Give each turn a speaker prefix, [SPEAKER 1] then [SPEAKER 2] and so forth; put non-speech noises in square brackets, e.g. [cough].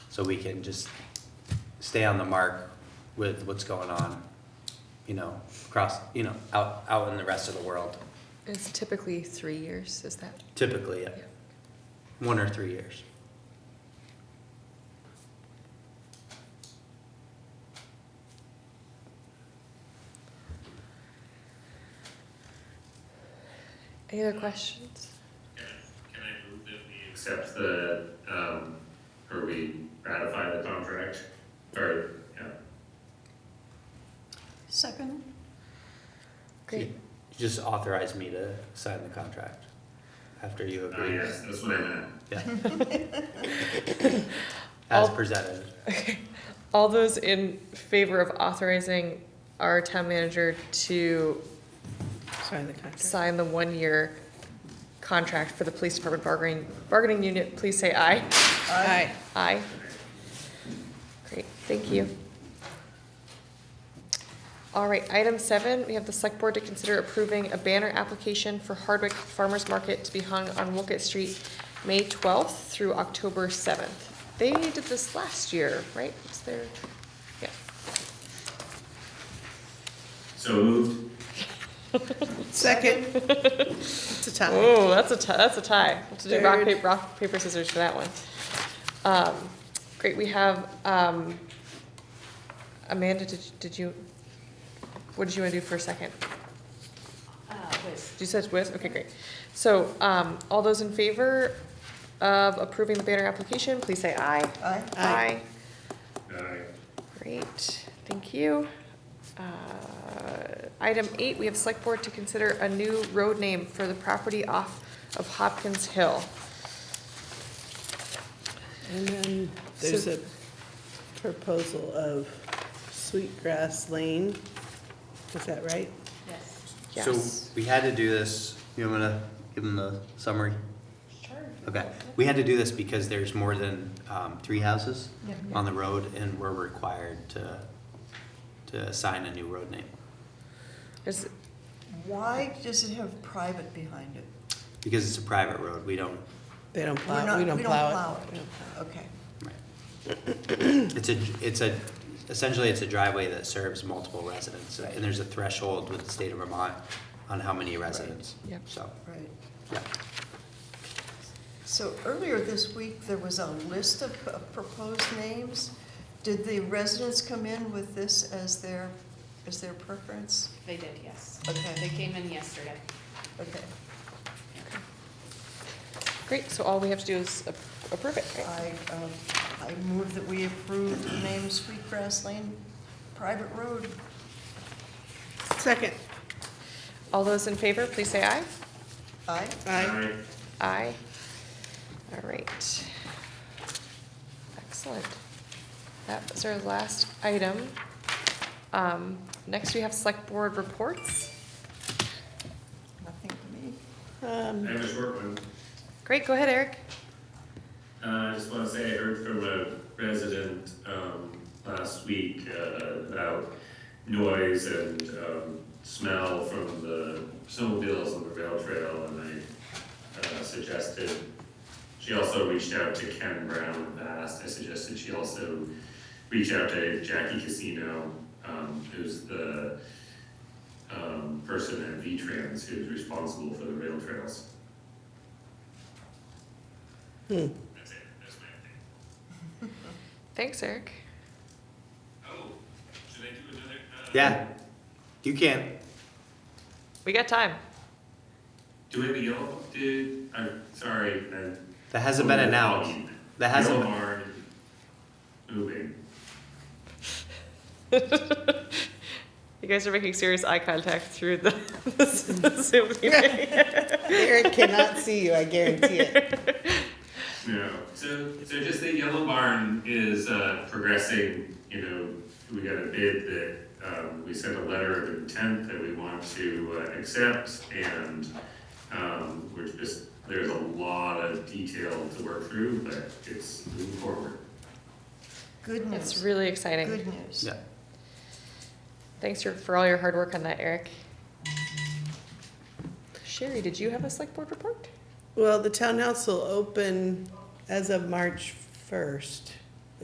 [SPEAKER 1] so we can just stay on the mark with what's going on, you know, across, you know, out, out in the rest of the world,
[SPEAKER 2] It's typically three years, is that?
[SPEAKER 1] typically, yeah,
[SPEAKER 2] Yeah.
[SPEAKER 1] one or three years.
[SPEAKER 2] Any other questions?
[SPEAKER 3] Can I move that we accept the, um, or we ratify the contract, or, yeah,
[SPEAKER 4] Second?
[SPEAKER 2] Great.
[SPEAKER 1] Just authorize me to sign the contract after you
[SPEAKER 3] oh,
[SPEAKER 1] agree,
[SPEAKER 3] yes, that's what I meant.
[SPEAKER 1] yeah.
[SPEAKER 2] [laughs]
[SPEAKER 1] As
[SPEAKER 2] I'll-
[SPEAKER 1] presented,
[SPEAKER 2] All those in favor of authorizing our town manager to
[SPEAKER 4] Sign the contract.
[SPEAKER 2] sign the one-year contract for the police department bargaining, bargaining unit, please say aye.
[SPEAKER 4] Aye.
[SPEAKER 2] Aye. Great, thank you. All right, item seven, we have the select board to consider approving a banner application for Hardwick Farmers Market to be hung on Wilkett Street, May twelfth through October seventh. They did this last year, right? Was there, yeah.
[SPEAKER 3] So moved,
[SPEAKER 4] Second? [laughs] It's a tie.
[SPEAKER 2] Oh, that's a tie, that's a tie. We'll have to do rock,
[SPEAKER 4] Third.
[SPEAKER 2] paper, rock, paper, scissors for that one. Um, great, we have, um, Amanda, did, did you, what did you wanna do for a second? You said with, okay, great. So, um, all those in favor of approving the banner application, please say aye.
[SPEAKER 4] Aye.
[SPEAKER 3] aye.
[SPEAKER 2] Great, thank you. Uh, Item eight, we have select board to consider a new road name for the property off of Hopkins Hill.
[SPEAKER 4] And then there's
[SPEAKER 2] So-
[SPEAKER 4] a proposal of Sweetgrass Lane. Is that right?
[SPEAKER 5] Yes.
[SPEAKER 1] so
[SPEAKER 2] Yes.
[SPEAKER 1] we had to do this, you want me to give them the summary?
[SPEAKER 5] Sure.
[SPEAKER 1] Okay, we had to do this because there's more than um, three houses
[SPEAKER 5] Yeah.
[SPEAKER 1] on the road, and we're required to, to assign a new road name.
[SPEAKER 2] Is,
[SPEAKER 6] Why does it have private behind it?
[SPEAKER 1] Because it's a private road, we don't,
[SPEAKER 4] They don't
[SPEAKER 6] We're
[SPEAKER 4] plow,
[SPEAKER 6] not-
[SPEAKER 4] we don't plow it.
[SPEAKER 6] We don't plow it, okay.
[SPEAKER 1] it's a, it's a, essentially, it's a driveway that serves multiple residents, and there's a threshold with the state of Vermont on how many residents.
[SPEAKER 2] Yep.
[SPEAKER 1] So,
[SPEAKER 6] Right.
[SPEAKER 1] yeah,
[SPEAKER 6] So earlier this week, there was a list of p- proposed names. Did the residents come in with this as their, as their preference?
[SPEAKER 5] They did, yes.
[SPEAKER 6] Okay.
[SPEAKER 5] They came in yesterday.
[SPEAKER 6] Okay,
[SPEAKER 2] great, so all we have to do is ap- approve it, right?
[SPEAKER 6] I, um, I move that we approve the name Sweetgrass Lane Private Road.
[SPEAKER 4] Second?
[SPEAKER 2] All those in favor, please say aye.
[SPEAKER 6] Aye?
[SPEAKER 4] Aye.
[SPEAKER 3] Aye.
[SPEAKER 2] Aye. All right. Excellent. That was our last item. Um, Next, we have select board reports.
[SPEAKER 6] Nothing to me.
[SPEAKER 3] I
[SPEAKER 4] Um,
[SPEAKER 3] have a short one.
[SPEAKER 2] Great, go ahead, Eric.
[SPEAKER 3] Uh, I just want to say I heard from a resident um, last week uh, about noise and um, smell from the snowmobiles on the rail trail, and I uh, suggested, she also reached out to Ken Brown Bass. I suggested she also reach out to Jackie Casino, um, who's the um, person at V-Trans who's responsible for the rail trails. That's it, that's my thing.
[SPEAKER 2] Thanks, Eric.
[SPEAKER 3] Oh, should I do another? uh,
[SPEAKER 1] yeah, you can,
[SPEAKER 2] We got time.
[SPEAKER 3] Do it the yellow, dude, I'm sorry, man.
[SPEAKER 1] that hasn't been announced, that hasn't,
[SPEAKER 3] Yellow barn, moving.
[SPEAKER 2] [laughs] You guys are making serious eye contact through the [laughs] the Zoom [laughs] meeting.
[SPEAKER 4] Eric cannot see you, I guarantee it.
[SPEAKER 3] No, so, so just that yellow barn is, uh, progressing, you know, we got a bid that, um, we sent a letter of intent that we want to, uh, accept, and, um, we're just, there's a lot of detail to work through, but it's moving forward.
[SPEAKER 6] Good
[SPEAKER 2] It's
[SPEAKER 6] news,
[SPEAKER 2] really exciting.
[SPEAKER 6] good news.
[SPEAKER 1] yeah,
[SPEAKER 2] Thanks for- for all your hard work on that, Eric. Sherry, did you have a select board report?
[SPEAKER 4] Well, the town council open as of March first.